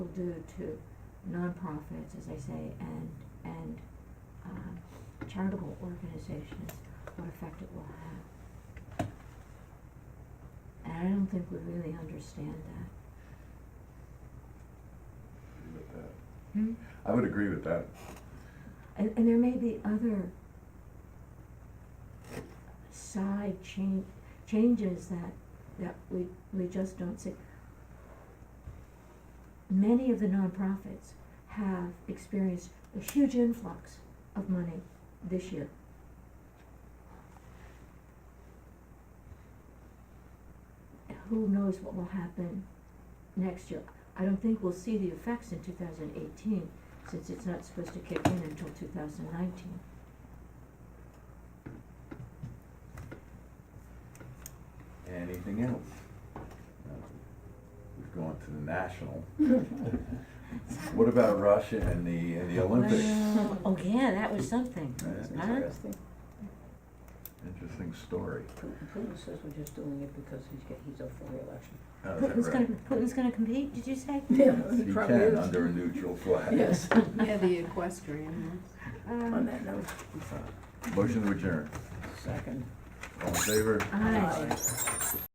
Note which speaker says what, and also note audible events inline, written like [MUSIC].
Speaker 1: due to nonprofits, as I say, and, and, um, charitable organizations, what effect it will have. And I don't think we really understand that.
Speaker 2: agree with that.
Speaker 1: Hmm?
Speaker 2: I would agree with that.
Speaker 1: And, and there may be other side change, changes that, that we, we just don't see. Many of the nonprofits have experienced a huge influx of money this year. Who knows what will happen next year? I don't think we'll see the effects in two thousand eighteen, since it's not supposed to kick in until two thousand nineteen.
Speaker 2: Anything else? No. We've gone to the national. What about Russia and the, and the Olympics?
Speaker 1: Well, oh yeah, that was something.
Speaker 2: That's
Speaker 1: Huh?
Speaker 2: interesting. Interesting story.
Speaker 3: Putin Putin says we're just doing it because he's get, he's up for reelection.
Speaker 2: Oh, is that
Speaker 1: Putin's gonna,
Speaker 2: right?
Speaker 1: Putin's gonna compete, did you say?
Speaker 3: Yeah, [LAUGHS]
Speaker 2: He can, under a neutral flag.
Speaker 3: Yes.
Speaker 4: Yeah, the equestrian.
Speaker 3: On
Speaker 1: Um,
Speaker 3: that note,
Speaker 2: Motion to adjourn.
Speaker 3: second.
Speaker 2: All in favor?
Speaker 1: aye.